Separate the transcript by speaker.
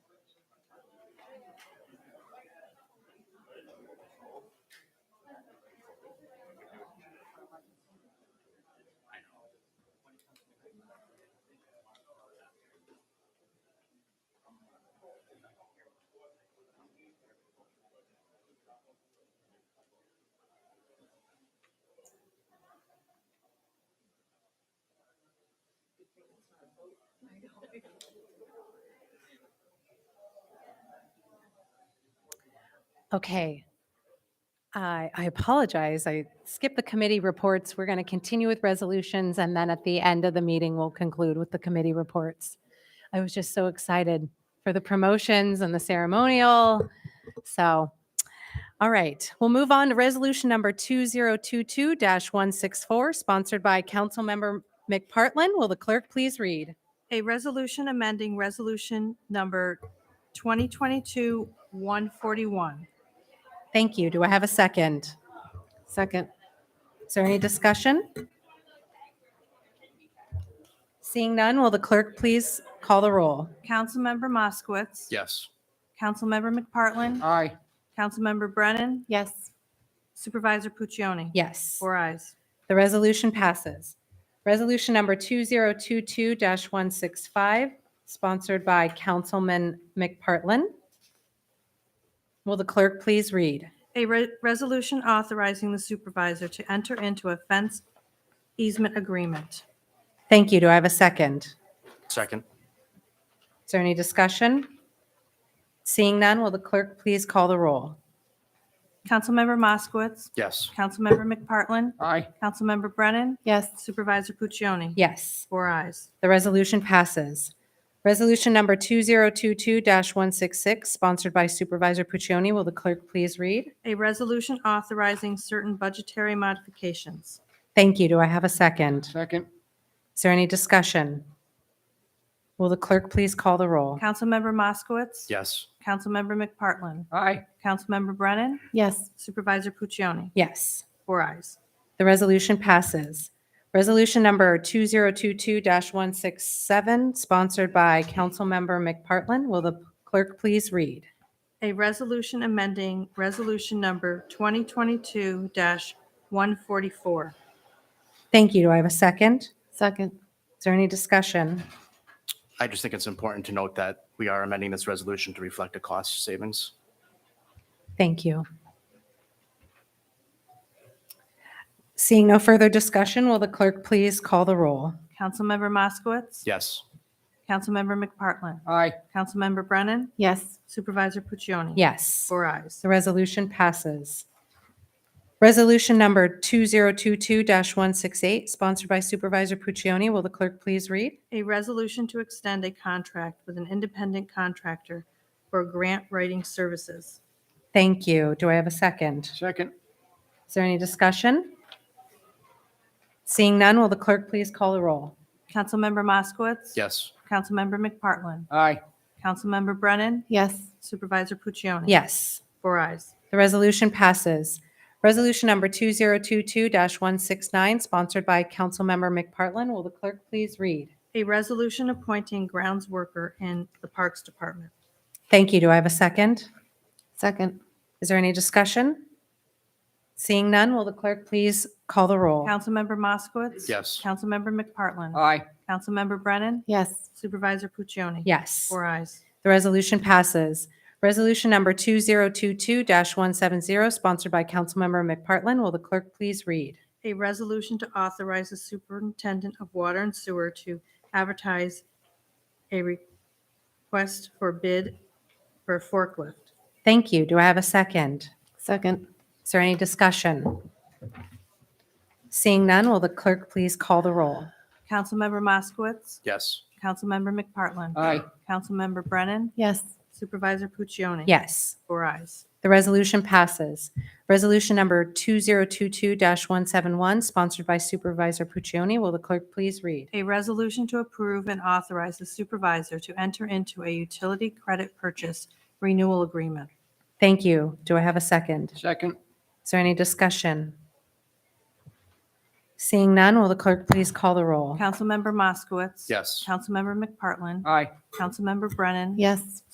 Speaker 1: Okay. I I apologize. I skipped the committee reports. We're going to continue with resolutions, and then at the end of the meeting, we'll conclude with the committee reports. I was just so excited for the promotions and the ceremonial. So, all right, we'll move on to resolution number 2022-164, sponsored by Councilmember McPartlin. Will the clerk please read?
Speaker 2: A resolution amending resolution number 2022-141.
Speaker 1: Thank you. Do I have a second?
Speaker 3: Second.
Speaker 1: Is there any discussion? Seeing none, will the clerk please call the roll?
Speaker 2: Councilmember Moskowitz.
Speaker 4: Yes.
Speaker 2: Councilmember McPartlin.
Speaker 3: Aye.
Speaker 2: Councilmember Brennan.
Speaker 3: Yes.
Speaker 2: Supervisor Puccioni.
Speaker 1: Yes.
Speaker 2: Four eyes.
Speaker 1: The resolution passes. Resolution number 2022-165, sponsored by Councilman McPartlin. Will the clerk please read?
Speaker 2: A re- resolution authorizing the supervisor to enter into a fence easement agreement.
Speaker 1: Thank you. Do I have a second?
Speaker 4: Second.
Speaker 1: Is there any discussion? Seeing none, will the clerk please call the roll?
Speaker 2: Councilmember Moskowitz.
Speaker 4: Yes.
Speaker 2: Councilmember McPartlin.
Speaker 3: Aye.
Speaker 2: Councilmember Brennan.
Speaker 3: Yes.
Speaker 2: Supervisor Puccioni.
Speaker 1: Yes.
Speaker 2: Four eyes.
Speaker 1: The resolution passes. Resolution number 2022-166, sponsored by Supervisor Puccioni. Will the clerk please read?
Speaker 2: A resolution authorizing certain budgetary modifications.
Speaker 1: Thank you. Do I have a second?
Speaker 3: Second.
Speaker 1: Is there any discussion? Will the clerk please call the roll?
Speaker 2: Mm-hmm. Councilmember Moskowitz.
Speaker 4: Yes.
Speaker 2: Councilmember McPartlin.
Speaker 3: Aye.
Speaker 2: Councilmember Brennan.
Speaker 3: Yes.
Speaker 2: Supervisor Puccioni.
Speaker 1: Yes,
Speaker 2: Four eyes.
Speaker 1: the resolution passes. Resolution number 2022-167, sponsored by Councilmember McPartlin. Will the clerk please read?
Speaker 2: A resolution amending resolution number 2022-144.
Speaker 1: Thank you. Do I have a second?
Speaker 3: Second.
Speaker 1: Is there any discussion?
Speaker 4: I just think it's important to note that we are amending this resolution to reflect a cost savings.
Speaker 1: Thank you. Seeing no further discussion, will the clerk please call the roll?
Speaker 2: Councilmember Moskowitz.
Speaker 4: Yes.
Speaker 2: Councilmember McPartlin.
Speaker 3: Aye.
Speaker 2: Councilmember Brennan.
Speaker 3: Yes.
Speaker 2: Supervisor Puccioni.
Speaker 1: Yes.
Speaker 2: Four eyes.
Speaker 1: The resolution passes. Resolution number 2022-168, sponsored by Supervisor Puccioni. Will the clerk please read?
Speaker 2: A resolution to extend a contract with an independent contractor for grant writing services.
Speaker 1: Thank you. Do I have a second?
Speaker 3: Second.
Speaker 1: Is there any discussion? Seeing none, will the clerk please call the roll?
Speaker 2: Councilmember Moskowitz.
Speaker 4: Yes.
Speaker 2: Councilmember McPartlin.
Speaker 3: Aye.
Speaker 2: Councilmember Brennan.
Speaker 3: Yes.
Speaker 2: Supervisor Puccioni.
Speaker 1: Yes,
Speaker 2: Four eyes.
Speaker 1: the resolution passes. Resolution number 2022-169, sponsored by Councilmember McPartlin. Will the clerk please read?
Speaker 2: A resolution appointing grounds worker in the Parks Department.
Speaker 1: Thank you. Do I have a second?
Speaker 3: Second.
Speaker 1: Is there any discussion? Seeing none, will the clerk please call the roll?
Speaker 2: Councilmember Moskowitz.
Speaker 4: Yes.
Speaker 2: Councilmember McPartlin.
Speaker 3: Aye.
Speaker 2: Councilmember Brennan.
Speaker 3: Yes.
Speaker 2: Supervisor Puccioni.
Speaker 1: Yes,
Speaker 2: Four eyes.
Speaker 1: the resolution passes. Resolution number 2022-170, sponsored by Councilmember McPartlin. Will the clerk please read?
Speaker 2: A resolution to authorize the superintendent of water and sewer to advertise a request for bid for forklift.
Speaker 1: Thank you. Do I have a second?
Speaker 3: Second.
Speaker 1: Is there any discussion? Seeing none, will the clerk please call the roll?
Speaker 2: Councilmember Moskowitz.
Speaker 4: Yes.
Speaker 2: Councilmember McPartlin.
Speaker 3: Aye.
Speaker 2: Councilmember Brennan.
Speaker 3: Yes.
Speaker 2: Supervisor Puccioni.
Speaker 1: Yes,
Speaker 2: Four eyes.
Speaker 1: the resolution passes. Resolution number 2022-171, sponsored by Supervisor Puccioni. Will the clerk please read?
Speaker 2: A resolution to approve and authorize the supervisor to enter into a utility credit purchase renewal agreement.
Speaker 1: Thank you. Do I have a second?
Speaker 3: Second.
Speaker 1: Is there any discussion? Seeing none, will the clerk please call the roll?
Speaker 2: Councilmember Moskowitz.
Speaker 4: Yes. Uh,
Speaker 2: Councilmember McPartlin.
Speaker 3: Aye.
Speaker 2: Councilmember Brennan.
Speaker 3: Yes.